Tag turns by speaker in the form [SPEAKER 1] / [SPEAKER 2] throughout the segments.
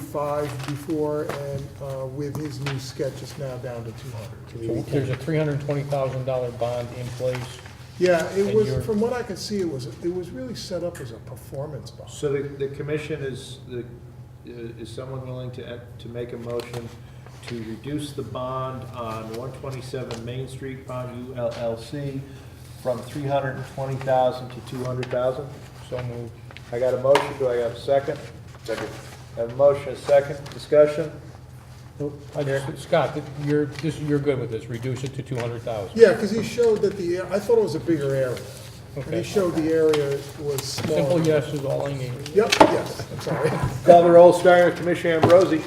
[SPEAKER 1] 135 before, and uh, with his new sketch, it's now down to 200.
[SPEAKER 2] So There's a three hundred and twenty thousand dollar bond in place.
[SPEAKER 1] Yeah, it
[SPEAKER 2] And
[SPEAKER 1] was,
[SPEAKER 2] you're-
[SPEAKER 1] from what I could see, it was, it was really set up as a performance bond.
[SPEAKER 3] So the, the commission is, the, uh, is someone willing to, act- to make a motion to reduce the bond on one twenty-seven Main Street, bond ULLC, from three hundred and twenty thousand to two hundred thousand?
[SPEAKER 2] So moved.
[SPEAKER 3] I got a motion, do I have a second? Second. I have a motion, a second, discussion?
[SPEAKER 2] I just- Scott, th- you're, this, you're good with this, reduce it to two hundred thousand.
[SPEAKER 1] Yeah, because he showed that the, I thought it was a bigger area. And he
[SPEAKER 2] Okay.
[SPEAKER 1] showed the area was smaller.
[SPEAKER 2] Simple yes is all I need.
[SPEAKER 1] Yep, yes, I'm sorry.
[SPEAKER 3] Call the roll, starting with Commissioner Ambrosi.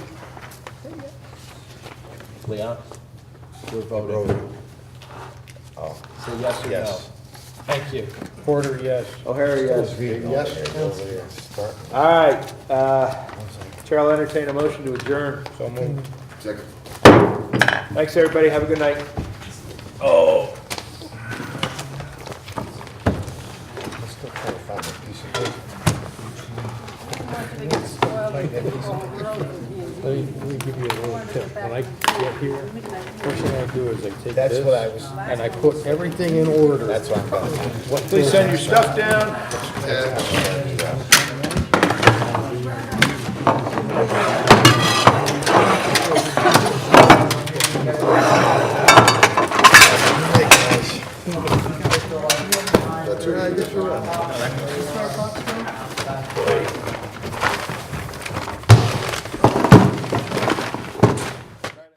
[SPEAKER 4] Leon? We're voting.
[SPEAKER 5] Voting. Oh.
[SPEAKER 3] Say yes or no.
[SPEAKER 4] Yes.
[SPEAKER 3] Thank you.
[SPEAKER 2] Porter, yes.
[SPEAKER 3] O'Hara, yes.
[SPEAKER 5] Yes. Over there, start.
[SPEAKER 3] All right, uh, Chair will entertain a motion to adjourn.
[SPEAKER 2] So moved.
[SPEAKER 5] Second.
[SPEAKER 3] Thanks, everybody, have a good night.
[SPEAKER 5] Let's still try to find a piece of paper.
[SPEAKER 6] They get spoiled if they go on the road with
[SPEAKER 2] Let me,
[SPEAKER 6] you.
[SPEAKER 2] let me give you a
[SPEAKER 6] You
[SPEAKER 2] little
[SPEAKER 6] wanted to
[SPEAKER 2] tip.
[SPEAKER 6] get
[SPEAKER 2] When I
[SPEAKER 6] back
[SPEAKER 2] get here,
[SPEAKER 6] midnight.
[SPEAKER 2] first thing I do is I take
[SPEAKER 5] That's what I
[SPEAKER 2] this
[SPEAKER 5] was,
[SPEAKER 2] and I put everything in order.
[SPEAKER 5] that's what I'm gonna do.
[SPEAKER 2] What
[SPEAKER 3] Please
[SPEAKER 2] goes
[SPEAKER 3] send your stuff down.
[SPEAKER 5] That's what I'm gonna do.